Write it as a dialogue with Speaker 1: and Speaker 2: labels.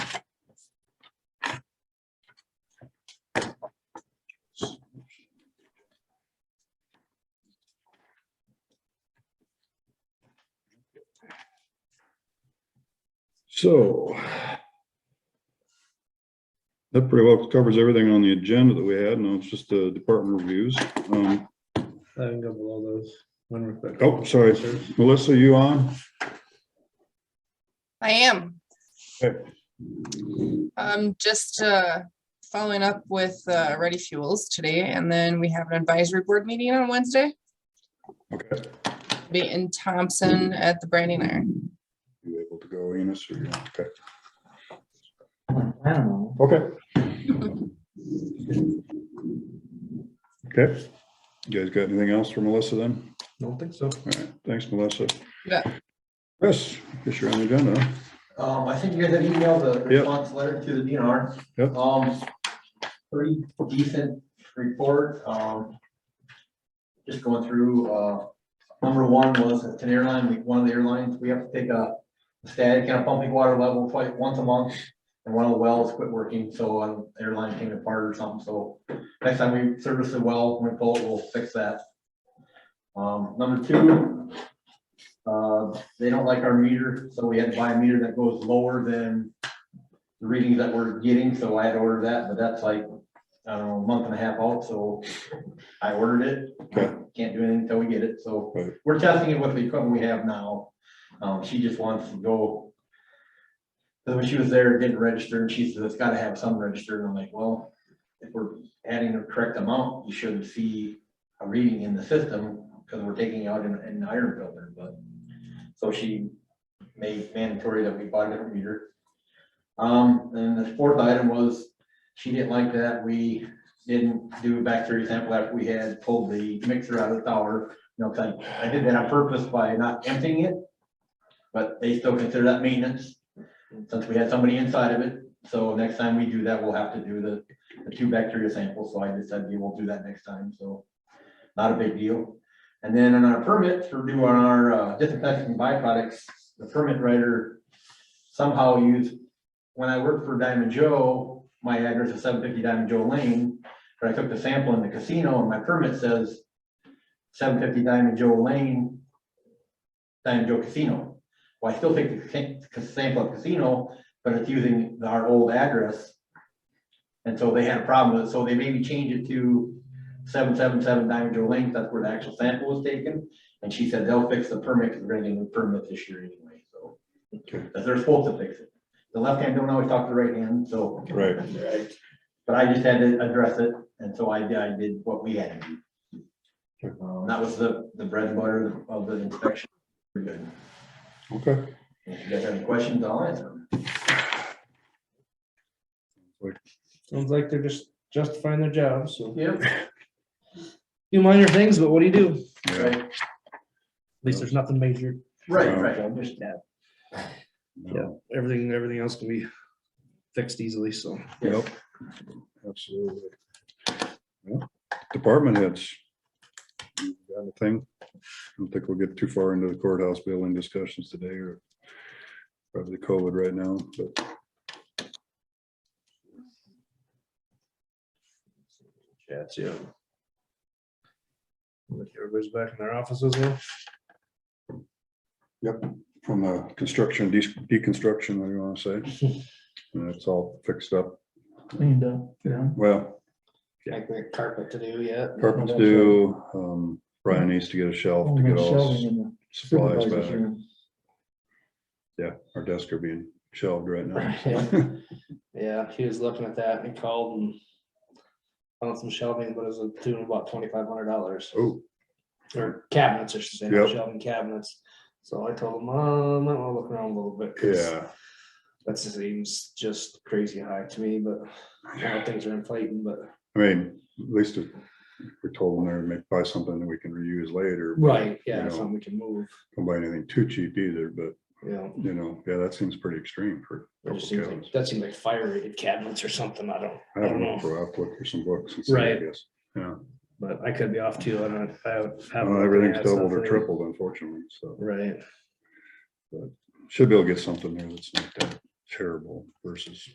Speaker 1: So. That pretty well covers everything on the agenda that we had. Now it's just the department reviews. Um,
Speaker 2: I can go below those. One real quick.
Speaker 1: oh, sorry. Melissa, you on?
Speaker 3: I am.
Speaker 1: Okay.
Speaker 3: Um, just, uh, following up with, uh, Ready Fuels today, and then we have an advisory board meeting on Wednesday.
Speaker 1: Okay.
Speaker 3: Be in Thompson at the Branding Iron.
Speaker 1: You able to go, Enos? or you- Okay.
Speaker 4: I don't know.
Speaker 1: Okay. Okay. You guys got anything else for Melissa then?
Speaker 2: Don't think so.
Speaker 1: All right. Thanks, Melissa.
Speaker 3: Yeah.
Speaker 1: Chris, guess you're on the agenda. huh?
Speaker 4: Um, I think you guys have emailed the
Speaker 1: Yep.
Speaker 4: response letter to the DNR.
Speaker 1: Yep.
Speaker 4: Um, pretty decent report, um. Just going through, uh, number one was it's an airline, we, one of the airlines, we have to take a static and a pumping water level twice, once a month. And one of the wells quit working, so an airline came apart or something, so next time we service the well, when we pull it, we'll fix that. Um, number two, uh, they don't like our meter, so we had to buy a meter that goes lower than the readings that we're getting, so I had ordered that, but that's like, I don't know, a month and a half out, so I ordered it.
Speaker 1: Okay.
Speaker 4: Can't do anything until we get it, so
Speaker 1: Right.
Speaker 4: we're testing it with the equipment we have now. Um, she just wants to go. So when she was there, it didn't register, and she says, it's gotta have some registered, and I'm like, well, if we're adding the correct amount, you should see a reading in the system, because we're taking out an, an iron filter, but. So she made mandatory that we buy a different meter. Um, and the fourth item was, she didn't like that we didn't do a bacteria sample after we had pulled the mixer out of the tower. You know, 'cause I, I did that on purpose by not emptying it, but they still consider that maintenance, since we had somebody inside of it. So next time we do that, we'll have to do the, the two bacteria samples, so I decided we will do that next time, so not a big deal. And then on our permit for doing our uh, disinfecting byproducts, the permit writer somehow used, when I worked for Diamond Joe, my address is seven fifty Diamond Joe Lane, but I took the sample in the casino and my permit says seven fifty Diamond Joe Lane, Diamond Joe Casino. Well, I still take the ca- sample at casino, but it's using our old address. And so they had a problem with it, so they made me change it to seven seven seven Diamond Joe Lane, that's where the actual sample was taken. And she said they'll fix the permit, because we're gonna get a new permit this year anyway, so.
Speaker 1: Okay.
Speaker 4: Because they're supposed to fix it. The left hand don't always talk to the right hand, so.
Speaker 1: Right.
Speaker 4: But I just had to address it, and so I, did- I did what we had to do. Um, that was the, the bread and butter of the inspection. We're good.
Speaker 1: Okay.
Speaker 4: If you guys have any questions, I'll answer them.
Speaker 2: Sounds like they're just justifying their job, so.
Speaker 4: Yep.
Speaker 2: Do minor things, but what do you do? At
Speaker 1: Yeah.
Speaker 2: least there's nothing major.
Speaker 4: Right, right.
Speaker 2: Just that.
Speaker 1: No.
Speaker 2: Everything, everything else can be fixed easily, so.
Speaker 1: Yep. Absolutely. Yeah. Department heads. You got Anything? I don't think we'll get too far into the courthouse building discussions today or probably COVID right now, but
Speaker 2: That's it. Everybody's back in their offices now.
Speaker 1: from the construction, de- deconstruction, what do you want to say? And it's all fixed up.
Speaker 5: cleaned up, yeah.
Speaker 1: Well,
Speaker 2: Like the carpet to do yet.
Speaker 1: carpets do, um, Brian needs to get a shelf
Speaker 5: Oh,
Speaker 1: to
Speaker 5: my
Speaker 1: get all
Speaker 5: shelving
Speaker 1: s-
Speaker 5: in the
Speaker 1: supplies
Speaker 5: supervisor's
Speaker 1: back.
Speaker 5: room.
Speaker 1: Yeah, our desks are being shelved right now.
Speaker 2: Yeah. Yeah, he was looking at that and he called and found some shelving, but it was a tune of about twenty-five hundred dollars,
Speaker 1: Oh,
Speaker 2: or cabinets, I should say,
Speaker 1: Yep.
Speaker 2: not shelving cabinets. So I told him, uh, I might wanna look around a little bit. 'cause
Speaker 1: yeah.
Speaker 2: That seems just crazy high to me, but you know, things are inflating, but.
Speaker 1: I mean, at least if we're told when they're gonna buy something that we can reuse later. but You
Speaker 2: Yeah,
Speaker 1: know.
Speaker 2: something we can move,
Speaker 1: Don't buy anything too cheap either, but
Speaker 2: you know,
Speaker 1: you know, yeah, that seems pretty extreme for. a
Speaker 2: it
Speaker 1: couple
Speaker 2: just seems
Speaker 1: cabinets.
Speaker 2: like, that seems like fire rated cabinets or something, I don't,
Speaker 1: I
Speaker 2: I don't know.
Speaker 1: I'll have to look for some books. and see, I
Speaker 2: Right.
Speaker 1: guess. Yeah,
Speaker 2: But I could be off too, I don't, I haven't.
Speaker 1: Well,
Speaker 2: looked
Speaker 1: everything's
Speaker 2: at that
Speaker 1: doubled or
Speaker 2: stuff.
Speaker 1: tripled unfortunately, so
Speaker 2: Right,
Speaker 1: should be able to get something there that's not that terrible versus